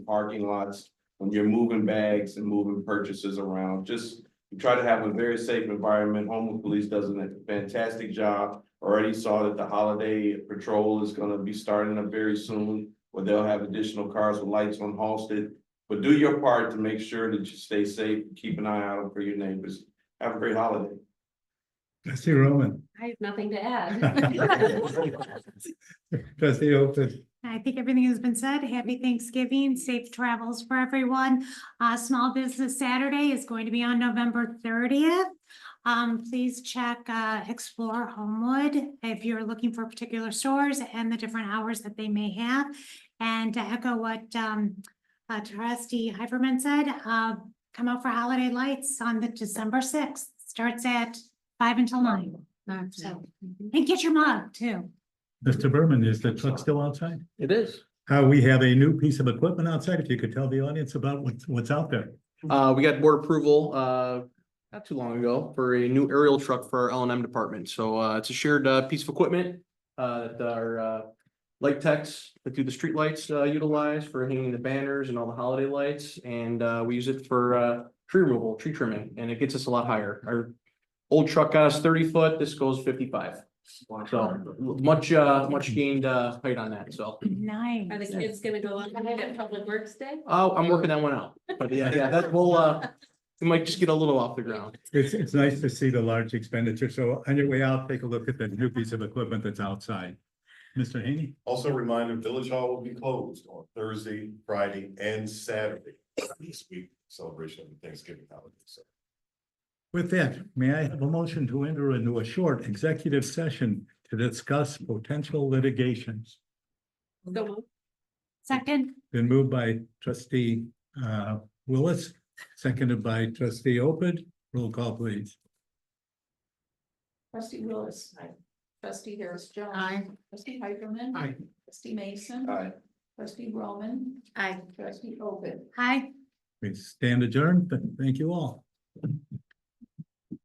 parking lots, when you're moving bags and moving purchases around, just we try to have a very safe environment. Homewood Police does a fantastic job. Already saw that the holiday patrol is gonna be starting up very soon, where they'll have additional cars with lights on Halsted. But do your part to make sure that you stay safe, keep an eye out for your neighbors. Have a great holiday. Trustee Roman, I have nothing to add. trustee Open, I think everything has been said. Happy Thanksgiving, safe travels for everyone. Uh, Small Business Saturday is going to be on November thirtieth. Um, please check, uh, Explore Homewood if you're looking for particular stores and the different hours that they may have. And to echo what, um, uh, trustee Hyperman said, uh, come out for holiday lights on the December sixth. Starts at five until nine. So, and get your mug too. Mr. Berman, is the truck still outside? It is. Uh, we have a new piece of equipment outside, if you could tell the audience about what's, what's out there. Uh, we got board approval, uh, not too long ago for a new aerial truck for our L and M department. So, uh, it's a shared, uh, piece of equipment. Uh, that our, uh, light techs that do the streetlights, uh, utilize for hanging the banners and all the holiday lights. And, uh, we use it for, uh, tree removal, tree trimming, and it gets us a lot higher. Our old truck got us thirty foot, this goes fifty-five. So much, uh, much gained, uh, height on that, so. Nice. Are the kids gonna go on at Public Works Day? Oh, I'm working that one out, but yeah, yeah, that will, uh, it might just get a little off the ground. It's, it's nice to see the large expenditure, so on your way out, take a look at the new piece of equipment that's outside. Mr. Haney, Also a reminder, Village Hall will be closed on Thursday, Friday, and Saturday this week, celebration of the Thanksgiving holiday, so. with that, may I have a motion to enter into a short executive session to discuss potential litigations? So, Second, Been moved by trustee uh Willis, seconded by trustee Opid. Roll call, please. Trustee Willis. Aye. Trustee Harris Jones. Aye. Trustee Heiderman. Aye. Trustee Mason. Aye. Trustee Roman. Aye. Trustee Ovid. hi. We stand adjourned, but thank you all.